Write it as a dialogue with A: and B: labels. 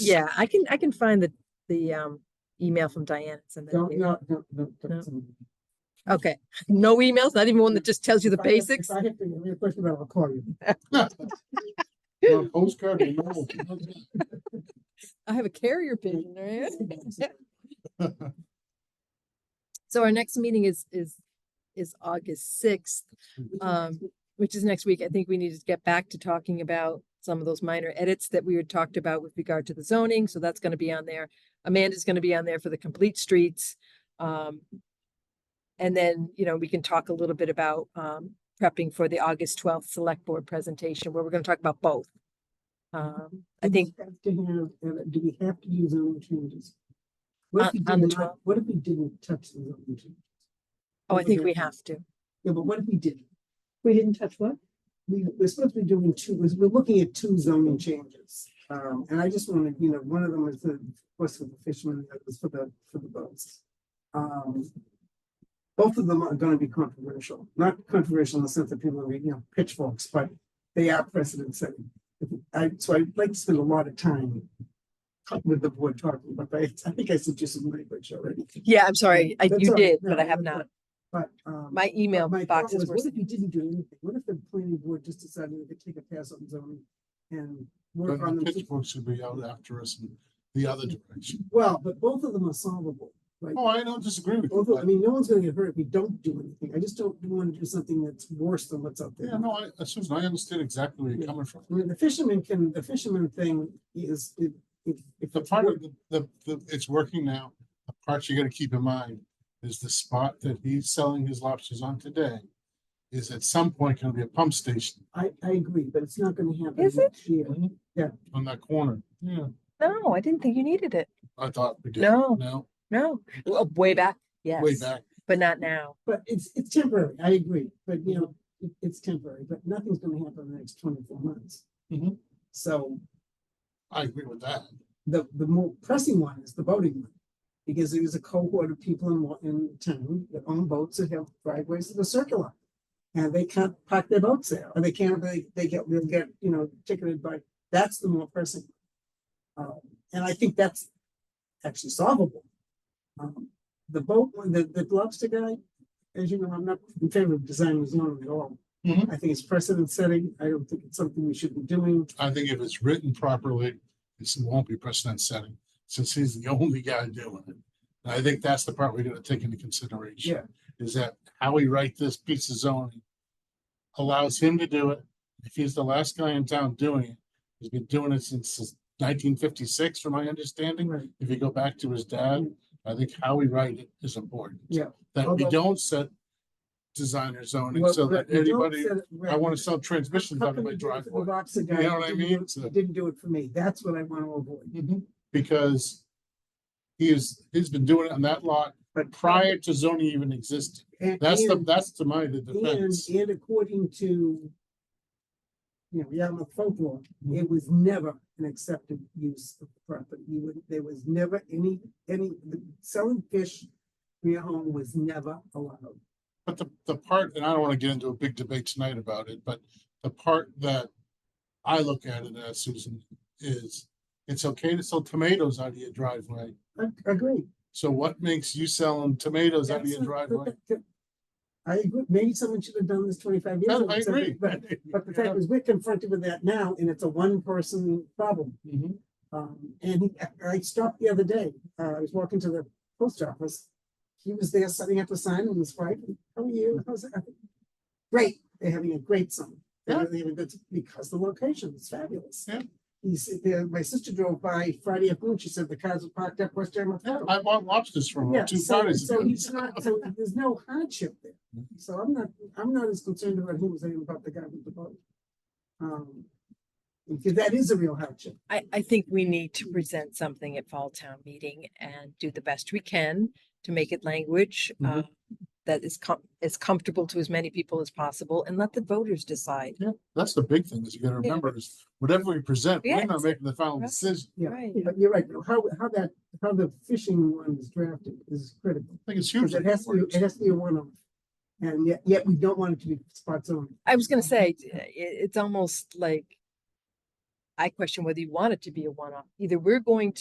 A: Yeah, I can, I can find the, the, um, email from Diane. and send that
B: Don't,
A: to you.
B: no, no, no,
A: No.
B: don't. send me.
A: Okay, no emails, not even one that just tells you the
B: If I have- if
A: basics?
B: I have to, you a question about, it, I'll call you.
C: Or a Postcard, you know.
A: I have a carrier pigeon, right? So our next meeting is, is, is August sixth,
B: Mm-hmm.
A: um, which is next week. I think we need to get back to talking about some of those minor edits that we had talked about with regard to the zoning, so that's gonna be on there. Amanda's gonna be on there for the complete streets. Um, and then, you know, we can talk a little bit about, um, prepping for the August twelfth select board presentation, where we're gonna talk about both. Um, I
B: We
A: think,
B: have To have, uh, do we have to do zone changes?
A: On-
B: What if we
A: Uh, on the
B: did not,
A: 12th?
B: what if we didn't touch the zone changes?
A: oh, I
B: Those are
A: think
B: good
A: we
B: ones.
A: have to.
B: Yeah, but what if we didn't?
D: We didn't touch what?
B: we, we're supposed to be doing two, we're, we're looking at two zoning changes. Um, and I just wanted, you know, one of them is the, was for the fishermen, the other's for the, for the boats. Um. Both of them are gonna be controversial, not controversial in the sense that people are, you know, pitchforks, but they are precedent setting. I, so I'd like to spend a lot of time talking with the board talking, but I, I think I suggested language already.
A: Yeah, I'm sorry, I,
B: That's
A: you
B: all right.
A: did,
B: No,
A: but I
B: no,
A: have
B: no,
A: not.
B: But, um.
A: My
B: But
A: email
B: my thought
A: boxes
B: was,
A: were.
B: What if you didn't do anything? What if the planning board just decided to take a pass on zoning and
C: But
B: work on
C: the
B: them?
C: pitchfork should be out after us in the other direction.
B: Well, but both of them are solvable, right?
C: Oh, I don't disagree with you.
B: Both, of- I
C: but-
B: mean, no one's gonna get hurt if we don't do anything. I just don't wanna do something that's worse than what's out there.
C: Yeah, no, I, uh, Susan, I understand exactly where you're
B: Yeah.
C: coming from.
B: I mean, the fisherman can, the fisherman thing is, if, if. if
C: The
B: it's
C: part
B: work-
C: of the, the, the, it's working now, the part you gotta keep in mind is the spot that he's selling his lobsters on today is at some point gonna be a pump station
B: I, I agree, but it's not gonna happen.
A: Is it?
B: next year.
C: on that corner. Yeah.
A: No, I didn't think you needed it.
C: I thought we did.
A: No.
C: No,
A: No, Well, way back, yes,
C: way back.
A: but not now.
B: But it's, it's temporary, I agree, but you know, it, it's temporary, but nothing's gonna happen in the next twenty-four months.
C: Mhm.
B: So
C: I agree with that.
B: the, the more pressing one is the boating one. Because there was a cohort of people in, wa- in town that own boats that have driveways to the circular. And they can't park their boats there, or they can't, they, they get, they'll get, you know, ticketed by, that's the more pressing. Um, and I think that's actually solvable. Um, The boat, one, the, the lobster guy, as you know, I'm not in favor of designing his own at all.
C: Mhm.
B: I think it's precedent setting, I don't think it's something we should be doing.
C: I think if it's written properly, this won't be precedent setting, since he's the only guy doing it. And I think that's the part we're gonna take into consideration. Is that how we write this piece of zoning allows him to do it. If he's the last guy in town doing it, he's been doing it since nineteen fifty-six, from my understanding.
B: Right.
C: If you go back to his dad, I think how we write it is important.
B: Yeah.
C: That we
B: Although-
C: don't set designer zoning
B: Well,
C: so that
B: right, you don't
C: anybody,
B: set it
C: I
B: right.
C: wanna sell transmissions
B: How
C: out of
B: come
C: my
B: you did it for the
C: driveway.
B: Roxy
C: You
B: guy
C: know what I
B: and didn't do
C: mean?
B: it-
C: So-
B: Didn't do it for me. That's what I want to avoid.
C: Because he is, he's been doing it on that lot
B: But
C: prior to zoning even existing.
B: And,
C: That's the,
B: and,
C: that's to my the
B: and
C: defense.
B: and according to you know, Yarmouth folklore, it was never an accepted use of the property. You would, there was never any, any, selling fish in your home was never allowed.
C: But the, the part, and I don't wanna get into a big debate tonight about it, but the part that I look at it as, Susan, is it's okay to sell tomatoes out of your driveway.
B: I I agree.
C: So what makes you selling tomatoes out of
B: That's
C: your
B: not- but
C: driveway?
B: that- that- I agree. Maybe someone should have done this twenty-five years
C: No,
B: ago.
C: I
B: except-
C: agree.
B: But, but the fact is, we're confronted with that now and it's a one-person problem.
C: Mhm.
B: Um, and he, I- I stopped the other day, uh, I was walking to the post office. He was there setting up a sign and was right, how are you? How's it? Great, they're having a great summer. They're
C: Yeah.
B: really having a good, because the location is fabulous.
C: Yeah.
B: He's, there- my sister drove by Friday afternoon, she said the cars were parked up West Yarmouth.
C: Yeah,
B: Road.
C: I bought lobsters from
B: Yeah,
C: him two
B: so,
C: parties
B: so
C: ago.
B: he's not, so there's no hardship there.
C: Mhm.
B: So I'm not, I'm not as concerned about him as I am about the guy with the boat. Um, because that is a real hardship.
A: I, I think we need to present something at Fall Town Meeting and do the best we can to make it language uh,
C: Mhm.
A: that is com- as comfortable to as many people as possible and let the voters decide.
C: Yeah, that's the big thing is you gotta
A: Yeah.
C: remember is whatever we present, we're
A: Yes.
C: not making the final
A: Right.
C: decision.
B: Yeah.
A: Right.
B: But you're right, though, how, how that, how the fishing one is drafted is critical,
C: I think it's
B: because
C: huge. that
B: it
C: it
B: has to, be-
C: works.
B: it has to be a one-off. And yet, yet we don't want it to be spot on.
A: uh, I was gonna say, it, it's almost like I question whether you want it to be a one-off. Either we're going